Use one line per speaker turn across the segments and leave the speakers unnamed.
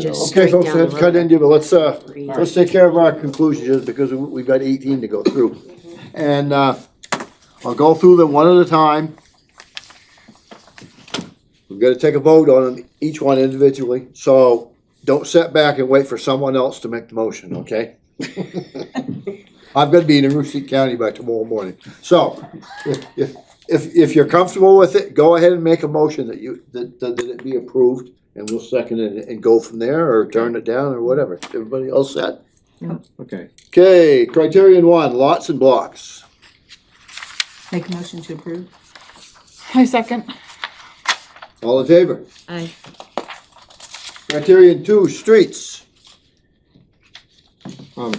just
Okay,
straight
folks,
down the
let's cut
road.
into, but let's, uh,
Three.
let's take care of our conclusions, just because we- we've got eighteen to go through. And, uh, I'll go through them one at a time. We've gotta take a vote on them, each one individually, so don't sit back and wait for someone else to make the motion, okay? I'm gonna be in Aroostook County by tomorrow morning, so, if, if, if, if you're comfortable with it, go ahead and make a motion that you, that, that that it be approved and we'll second it and go from there, or turn it down, or whatever. Everybody all set?
Okay.
Okay, criterion one, lots and blocks.
Make a motion to approve?
I second.
All in favor?
Aye.
Criterion two, streets.
Um,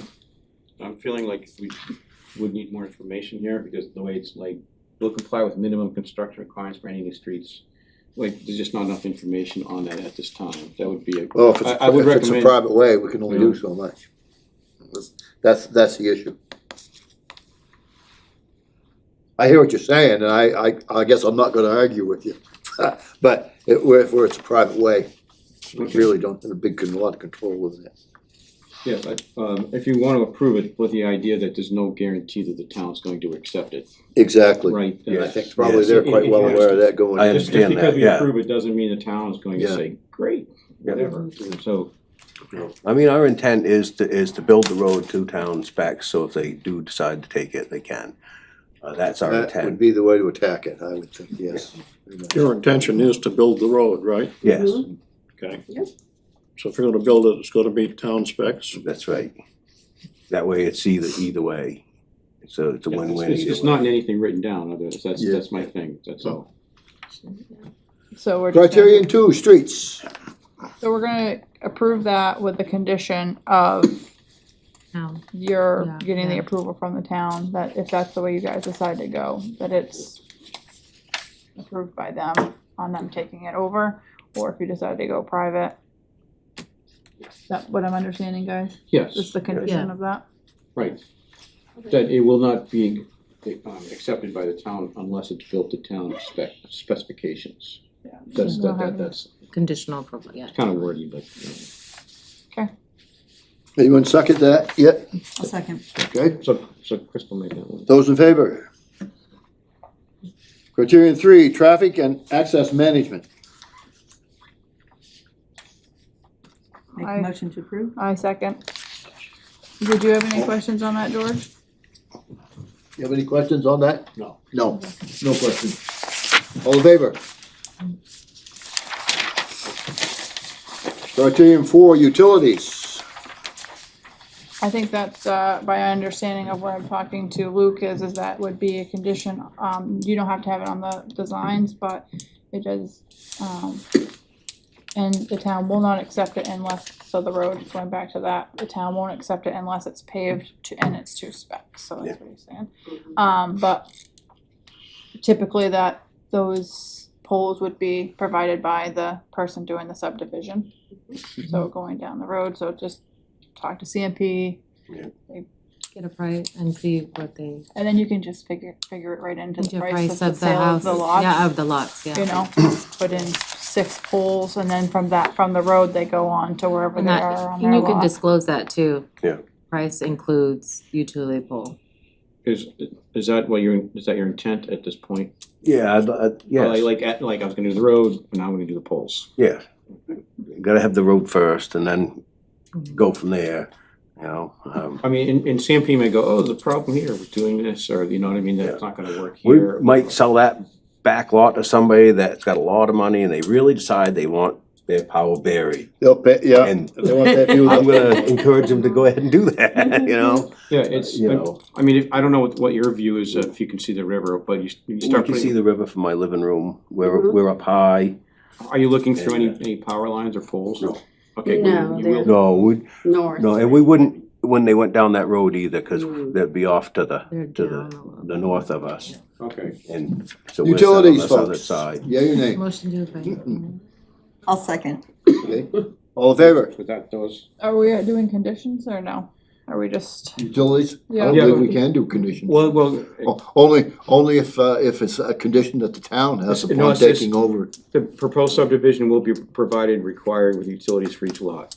I'm feeling like we would need more information here because the way it's like, will comply with minimum construction requirements for any new streets. Like, there's just not enough information on that at this time. That would be a,
Well, if it's,
I- I would
if it's a
recommend-
private way, we can only do
Yeah.
so much. That's, that's the issue. I hear what you're saying, and I, I, I guess I'm not gonna argue with you. But it, where, where it's a private way, we really don't have a big, con- lot of control with it.
yeah, but, um, if you want to approve it with the idea that there's no guarantee that the town's going to accept it,
Exactly.
right?
And I
Uh,
think probably
Yes.
they're quite well aware of that going.
I
in.
Just just
understand
because
that,
we
yeah.
approve it doesn't mean the town is going to
Yeah.
say, great, whatever. So,
I mean, our intent is to, is to build the road to town specs, so if they do decide to take it, they can. Uh, that's our
That would
intent,
be the way to attack it, I would think, yes.
Your intention is to build the road, right?
yes,
Okay.
Yep.
So if you're gonna build it, it's gonna be town specs.
that's right. That way it's either, either way, so it's a
it's,
win-win
it's- it's
either
not
way.
in anything written down, otherwise, that's,
Yeah.
that's my thing, that's all.
So we're. just gonna-
Criterion two, streets.
So we're gonna approve that with the condition of
Town.
your
Yeah,
getting the
yeah.
approval from the town, that if that's the way you guys decide to go, that it's approved by them on them taking it over, or if you decide to go private. Is that what I'm understanding, guys?
Yes.
Is the condition of that?
Right. That it will not be um, accepted by the town unless it's built to town spec, specifications.
Yeah.
That's, that, that- that's
Conditional approval, yeah.
kind of wordy, but, you know.
Anyone second that yet?
A second.
Okay,
so, so Crystal made that one.
those in favor? Criterion three, traffic and access management.
Make
Aye.
a motion to approve?
I second. Did you have any questions on that, George?
You have any questions on that?
No.
No, no questions. All in favor? Criterion four, utilities.
I think that's, uh, by understanding of what I'm talking to Luke is, is that would be a condition, um, you don't have to have it on the designs, but it does, um, and the town will not accept it unless, so the road, going back to that, the town won't accept it unless it's paved to, and it's to spec, so that's what he's saying. Um, but typically that, those poles would be provided by the person doing the subdivision. So going down the road, so just talk to CMP,
Get a price and see what they,
and then you can just figure, figure it right into
into
the
a
price
price
of the
of the
sale of
house,
the lots.
yeah, of the lots, yeah.
You know, put in six poles, and then from that, from the road, they go on to wherever
And
they
that-
are on
and
their
you can
lot.
disclose that too.
Yeah.
Price includes utility pole.
Is, is that what your, is that your intent at this point?
Yeah, I'd- I'd-
Oh, Like-
yes,
Like, at- like I was gonna do the road, but now I'm gonna do the poles.
yeah. Gotta have the road first and then go from there, you know, um.
I mean, and, and CMP may go, oh, there's a problem here with doing this, or, you know what I mean, that's not gonna work
We
here.
might sell that back lot to somebody that's got a lot of money and they really decide they want their power buried.
They'll pay, yeah.
And
They want that view.
I'm gonna encourage them to go ahead and do that, you know?
Yeah, it's,
You know,
I mean, if- I don't know what, what your view is, uh, if you can see the river, but you, you
you
start
can see
putting,
the river from my living room. We're, we're up high.
are you looking through any, any power lines or poles?
No.
Okay.
No,
you
they're-
will-
No, we,
north.
no, and we wouldn't, when they went down that road either, cause they'd be off to the,
They're
to
down a
the,
little.
the north of us.
Okay.
And so we're set on
Utilities,
this other
folks.
side.
Yeah, your name,
Motion to approve.
I'll second.
okay? All in favor?
So that, those,
Are we doing conditions or no? Are we just,
Utilities, I don't
Yeah.
believe we can do conditions.
Well, well,
O- Only, only if, uh, if it's a condition that the town has
No,
upon
it's- it's-
taking over.
the proposed subdivision will be provided required with utilities for each lot.